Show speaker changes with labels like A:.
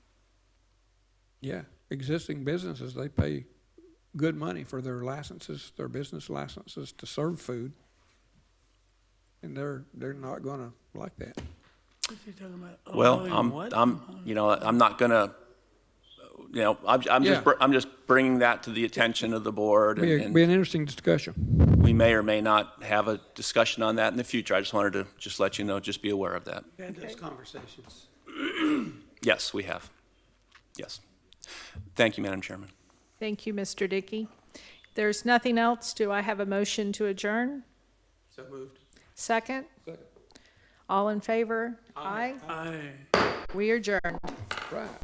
A: Yeah, existing businesses, they pay good money for their licenses, their business licenses to serve food. And they're, they're not gonna like that.
B: What's he talking about? Oh, A
C: Well,
B: million
C: I'm,
B: what?
C: I'm, you know, I'm not gonna, you know, I'm, I'm
A: Yeah.
C: just, br- I'm just bringing that to the attention of the board,
A: Be,
C: and
A: a-
C: and
A: be an interesting discussion.
C: we may or may not have a discussion on that in the future. I just wanted to just let you know, just be aware of that.
D: Had those conversations.
C: Yes, we have. Yes. Thank you, Madam Chairman.
E: Thank you, Mr. Dickey. If There's nothing else. Do I have a motion to adjourn?
D: So moved.
E: Second? All in favor? Aye.
B: Aye.
E: We adjourn.
A: Right.